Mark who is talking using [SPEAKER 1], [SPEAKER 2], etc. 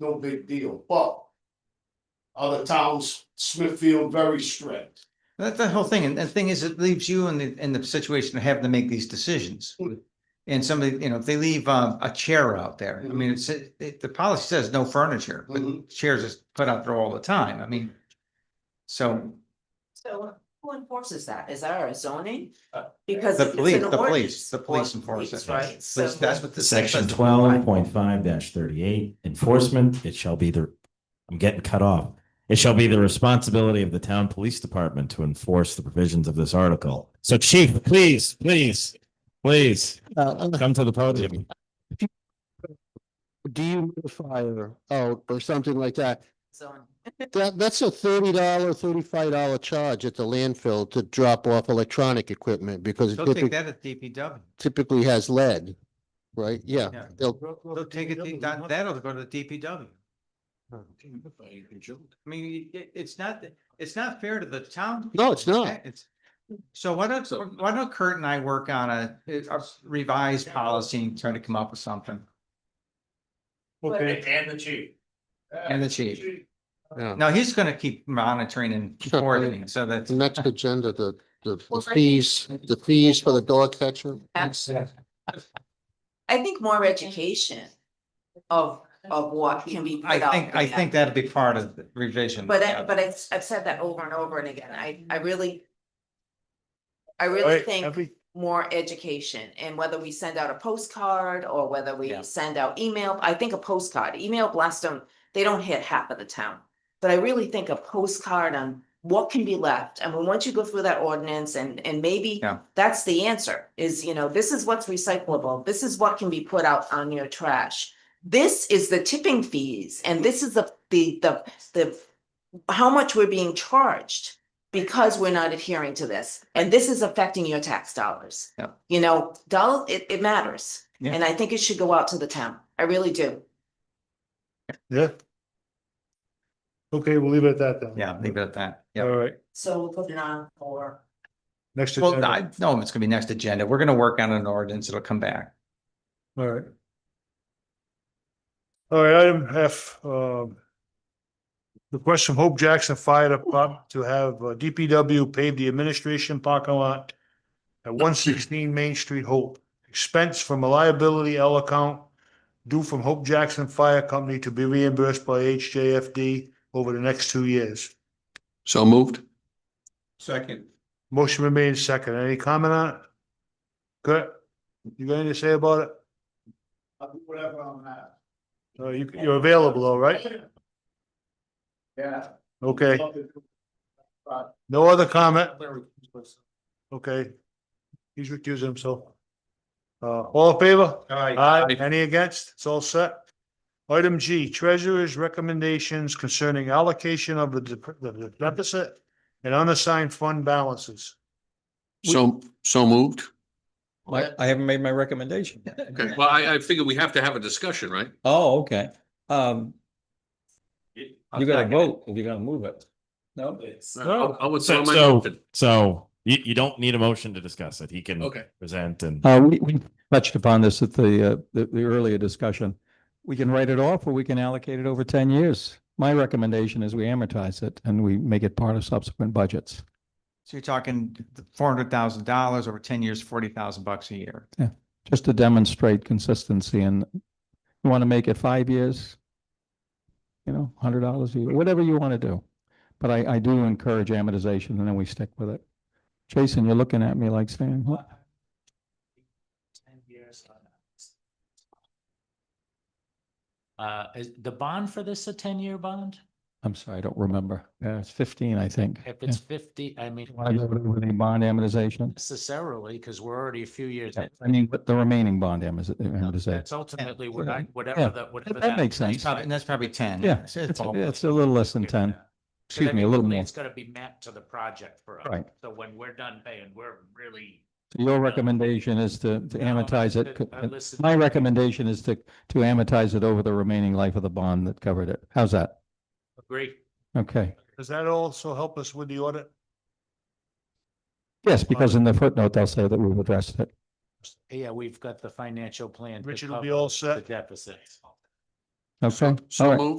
[SPEAKER 1] no big deal, but. Other towns, Smithfield very strict.
[SPEAKER 2] That's the whole thing, and the thing is, it leaves you in the, in the situation of having to make these decisions.
[SPEAKER 3] Mm.
[SPEAKER 2] And somebody, you know, if they leave uh, a chair out there, I mean, it's, it- the policy says no furniture, but
[SPEAKER 3] Mm-hmm.
[SPEAKER 4] Mm-hmm.
[SPEAKER 1] Mhm.
[SPEAKER 2] chairs is put out there all the time, I mean. So,
[SPEAKER 3] So who enforces that? Is that our zoning? Because.
[SPEAKER 2] The
[SPEAKER 3] it's an
[SPEAKER 2] police- the police-
[SPEAKER 3] ordinance.
[SPEAKER 2] the police
[SPEAKER 3] Or
[SPEAKER 2] enforce it.
[SPEAKER 3] police, Right, so.
[SPEAKER 2] that's that's what the.
[SPEAKER 5] Section twelve point five thirty-eight, enforcement, it shall be the, I'm getting cut off. It shall be the responsibility of the town police department to enforce the provisions of this article. So chief, please, please, please,
[SPEAKER 6] Uh,
[SPEAKER 5] come to the podium.
[SPEAKER 6] dehumidifier out or something like that.
[SPEAKER 3] zoning.
[SPEAKER 6] That, that's a thirty dollar, thirty-five dollar charge at the landfill to drop off electronic equipment because it
[SPEAKER 2] They'll take
[SPEAKER 6] typically,
[SPEAKER 2] that at DPW,
[SPEAKER 6] typically has lead, right? Yeah.
[SPEAKER 2] Yeah.
[SPEAKER 6] They'll,
[SPEAKER 2] they'll take it, that- that'll go to the DPW. I mean, it, it's not, it's not fair to the town.
[SPEAKER 6] No, it's not.
[SPEAKER 2] It's- So why don't, why don't Kurt and I work on a a revised policy and try to come up with something,
[SPEAKER 3] Okay.
[SPEAKER 1] And the chief.
[SPEAKER 2] and the chief. Now, he's gonna keep monitoring and
[SPEAKER 6] Sure.
[SPEAKER 2] coordinating, so that's.
[SPEAKER 6] the next agenda, the, the the
[SPEAKER 3] Well, right.
[SPEAKER 6] fees, the fees for the dog catcher.
[SPEAKER 3] I think more education of, of what can be
[SPEAKER 2] I
[SPEAKER 3] put out.
[SPEAKER 2] think, I
[SPEAKER 3] there.
[SPEAKER 2] think that'll be part of the revision.
[SPEAKER 3] But I, but I've, I've said that over and over and again. I, I really. I really think more education and whether we send out a postcard or whether we
[SPEAKER 2] Yeah.
[SPEAKER 3] send out email, I think a postcard, email blast them, they don't hit half of the town. But I really think a postcard on what can be left. I mean, once you go through that ordinance and, and maybe
[SPEAKER 2] Yeah.
[SPEAKER 3] that's the answer is, you know, this is what's recyclable. This is what can be put out on your trash. This is the tipping fees and this is the, the, the, the, how much we're being charged because we're not adhering to this. And this is affecting your tax dollars.
[SPEAKER 2] Yeah.
[SPEAKER 3] You know, doll, it, it matters.
[SPEAKER 2] Yeah.
[SPEAKER 3] And I think it should go out to the town. I really do.
[SPEAKER 4] Yeah. Okay, we'll leave it at that then.
[SPEAKER 2] Yeah, leave it at that.
[SPEAKER 4] All
[SPEAKER 2] Yeah.
[SPEAKER 4] right,
[SPEAKER 3] So we'll put it on for.
[SPEAKER 4] next
[SPEAKER 2] Well,
[SPEAKER 4] agenda,
[SPEAKER 2] I know it's gonna be next agenda. We're gonna work on an ordinance. It'll come back.
[SPEAKER 4] all right. All right, item F, um. Request from Hope Jackson Fire Department to have uh, DPW pave the administration parking lot. At one sixteen Main Street, Hope, expense from a liability L account. Due from Hope Jackson Fire Company to be reimbursed by HJFD over the next two years.
[SPEAKER 7] So moved.
[SPEAKER 2] Second.
[SPEAKER 4] Motion been made and second. Any comment on it? Kurt, you got anything to say about it?
[SPEAKER 1] I'll do whatever I'm at.
[SPEAKER 4] Uh, you, you're available, all right?
[SPEAKER 1] Yeah.
[SPEAKER 4] Okay, no other comment? Okay. He's recusing himself. Uh, all in favor? Aye. Any against? It's all set. Item G, treasurer's recommendations concerning allocation of the dep- the deficit and unassigned fund balances.
[SPEAKER 7] So, so moved.
[SPEAKER 8] My, I haven't made my recommendation.
[SPEAKER 7] Okay, well, I, I figure we have to have a discussion, right?
[SPEAKER 8] Oh, okay. Um, you gotta vote if you're gonna move it. No?
[SPEAKER 7] I'll- I'll
[SPEAKER 5] So,
[SPEAKER 7] withdraw my
[SPEAKER 5] so,
[SPEAKER 7] motion.
[SPEAKER 5] so you, you don't need a motion to discuss it. He can
[SPEAKER 7] Okay.
[SPEAKER 5] present and.
[SPEAKER 8] Uh, we, we touched upon this at the, uh, the, the earlier discussion. We can write it off or we can allocate it over ten years. My recommendation is we amortize it and we make it part of subsequent budgets.
[SPEAKER 2] So you're talking four hundred thousand dollars over ten years, forty thousand bucks a year.
[SPEAKER 8] just to demonstrate consistency and you want to make it five years, you know, hundred dollars a year, whatever you want to do. But I, I do encourage amortization and then we stick with it. Jason, you're looking at me like saying, what?
[SPEAKER 9] Ten years on that. Uh, is the bond for this a ten-year bond?
[SPEAKER 8] I'm sorry, I don't remember. Yeah, it's fifteen, I think.
[SPEAKER 9] If it's fifty, I mean,
[SPEAKER 8] Want to go with the bond amortization?
[SPEAKER 9] necessarily, because we're already a few years.
[SPEAKER 8] I
[SPEAKER 9] in.
[SPEAKER 8] mean, what the remaining bond amortiz- amortization.
[SPEAKER 9] That's ultimately what I,
[SPEAKER 8] Yeah,
[SPEAKER 9] whatever that, whatever.
[SPEAKER 8] that makes sense.
[SPEAKER 2] It's probably- And that's probably ten.
[SPEAKER 8] Yeah,
[SPEAKER 2] It's- it's
[SPEAKER 8] it's,
[SPEAKER 2] all-
[SPEAKER 8] it's a little less than ten. Excuse me, a little more.
[SPEAKER 9] It's gonna be mapped to the project for us.
[SPEAKER 8] Right.
[SPEAKER 9] So when we're done paying, we're really. uh,
[SPEAKER 8] So Your recommendation is to, to
[SPEAKER 9] No,
[SPEAKER 8] amortize it.
[SPEAKER 9] I- I
[SPEAKER 8] co-
[SPEAKER 9] listened-
[SPEAKER 8] My recommendation is to, to amortize it over the remaining life of the bond that covered it. How's that?
[SPEAKER 9] Agree.
[SPEAKER 8] Okay.
[SPEAKER 4] Does that also help us with the audit?
[SPEAKER 8] Yes, because in the footnote, they'll say that we've addressed it.
[SPEAKER 9] Yeah, we've got the financial plan. to
[SPEAKER 4] Richard will be
[SPEAKER 9] cover
[SPEAKER 4] all
[SPEAKER 9] The
[SPEAKER 4] set.
[SPEAKER 9] deficit.
[SPEAKER 10] Okay, all
[SPEAKER 8] So
[SPEAKER 10] right.
[SPEAKER 8] moved.